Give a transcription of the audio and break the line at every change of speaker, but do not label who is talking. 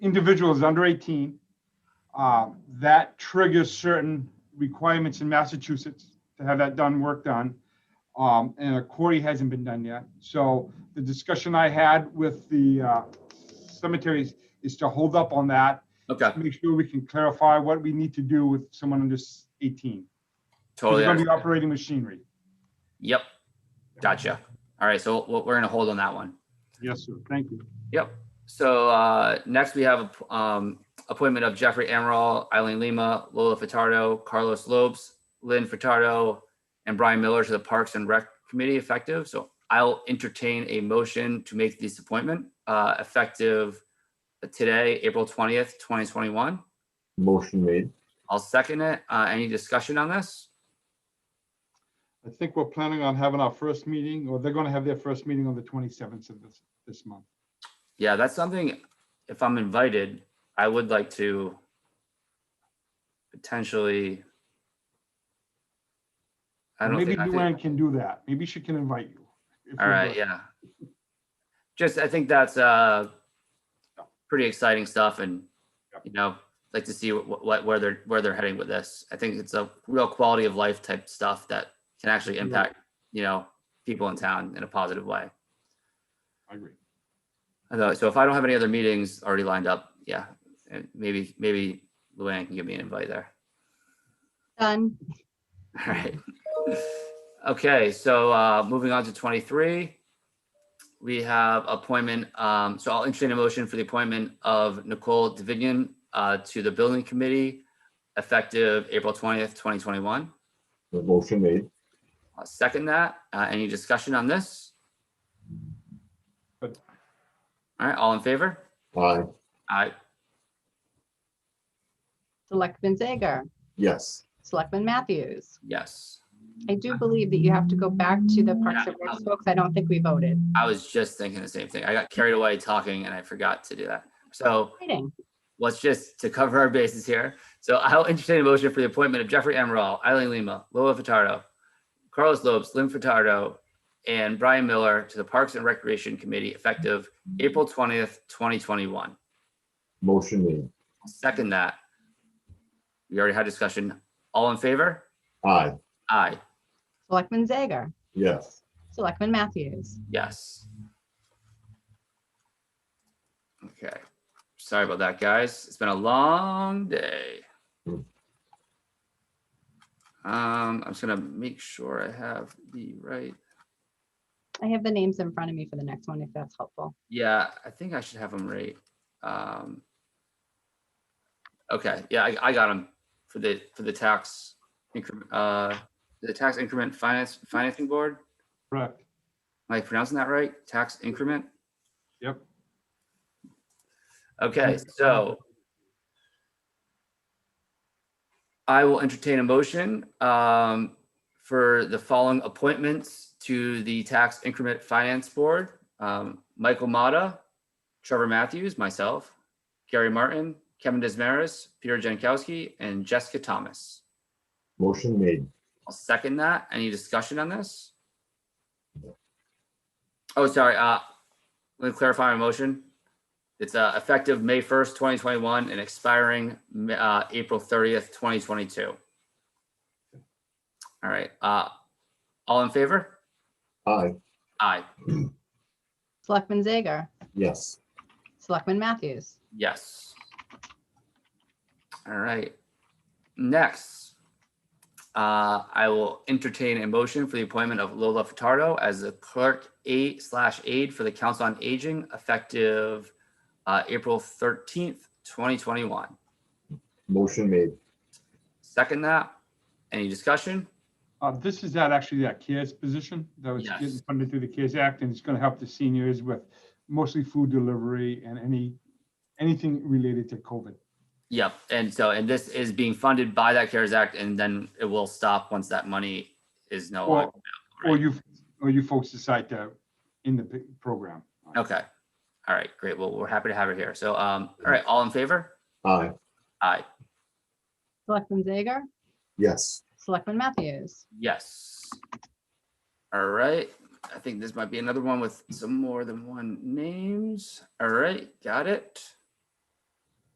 individuals under 18. um, That triggers certain requirements in Massachusetts to have that done, work done. Um, And a query hasn't been done yet. So the discussion I had with the uh, cemeteries is to hold up on that,
Okay,
make sure we can clarify what we need to do with someone under s- 18.
totally.
They're going to be
understand.
operating machinery.
Yep, gotcha. All right, so we're we're gonna hold on that one.
Yes, sir. Thank you.
Yep. So uh, next we have um, appointment of Jeffrey Amaral, Eileen Lima, Lola Furtado, Carlos Lopes, Lynn Furtado, and Brian Miller to the Parks and Rec Committee effective. So I'll entertain a motion to make this appointment uh, effective today, April 20th, 2021.
Motion made.
I'll second it. Uh, Any discussion on this?
I think we're planning on having our first meeting, or they're going to have their first meeting on the 27th of this, this month.
Yeah, that's something, if I'm invited, I would like to potentially. I don't
Maybe
think, I
Luann
think,
can do that. Maybe she can invite you. if
all
you're
right,
good.
yeah. Just, I think that's, uh, pretty exciting stuff and,
Yep.
you know, like to see what, what, where they're, where they're heading with this. I think it's a real quality of life type stuff that can actually
Yeah.
impact, you know, people in town in a positive way.
I agree.
I thought- so if I don't have any other meetings already lined up, yeah, and maybe, maybe Luann can give me an invite there.
Done.
All right. Okay, so uh, moving on to twenty-three. We have appointment, um, so I'll entertain a motion for the appointment of Nicole Davignon uh, to the Building Committee effective April twentieth, twenty twenty-one.
The motion made.
I'll second that. Uh, Any discussion on this? All
Good.
right, all in favor?
Aye.
Aye.
Selectman Zager,
Yes.
Selectman Matthews.
yes.
I do believe that you have to go back to the Parks and Rec folks. I don't think we voted.
I was just thinking the same thing. I got carried away talking and I forgot to do that. So
Exciting.
let's just to cover our bases here. So I'll entertain a motion for the appointment of Jeffrey Amaral, Eileen Lima, Lola Furtado, Carlos Lopes, Lynn Furtado, and Brian Miller to the Parks and Recreation Committee effective April twentieth, twenty twenty-one.
Motion made.
Second that. We already had discussion. All in favor?
Aye.
Aye.
Selectman Zager,
Yes.
Selectman Matthews.
Yes. Okay, sorry about that, guys. It's been a long day.
Hmm.
Um, I'm just gonna make sure I have the right,
I have the names in front of me for the next one if that's helpful.
yeah, I think I should have them right. Um. Okay, yeah, I, I got them for the, for the tax increment, uh, the tax increment finance, financing board.
Correct.
Am I pronouncing that right? Tax increment?
Yep.
Okay, so I will entertain a motion um, for the following appointments to the Tax Increment Finance Board. Um, Michael Mata, Trevor Matthews, myself, Gary Martin, Kevin Desmaris, Peter Jankowski, and Jessica Thomas.
Motion made.
I'll second that. Any discussion on this? Oh, sorry, uh, let me clarify my motion. It's, uh, effective May first, twenty twenty-one and expiring, uh, April thirtieth, twenty twenty-two. All right, uh, all in favor?
Aye.
Aye,
Selectman Zager,
Yes.
Selectman Matthews.
yes. All right, next. Uh, I will entertain a motion for the appointment of Lola Furtado as the clerk eight slash aide for the Council on Aging effective, uh, April thirteenth, twenty twenty-one.
Motion made.
Second that. Any discussion?
Uh, This is that actually that CARES position that was getting
Yes.
funded through the CARES Act, and it's going to help the seniors with mostly food delivery and any, anything related to COVID.
Yep. And so, and this is being funded by that CARES Act and then it will stop once that money is no longer.
Or, or
Oh, right.
you, or you folks decide to, in the p- program.
Okay. All right, great. Well, we're happy to have her here. So, um, all right, all in favor?
Aye.
Aye.
Selectman Zager,
Yes.
Selectman Matthews.
Yes. All right. I think this might be another one with some more than one names. All right, got it.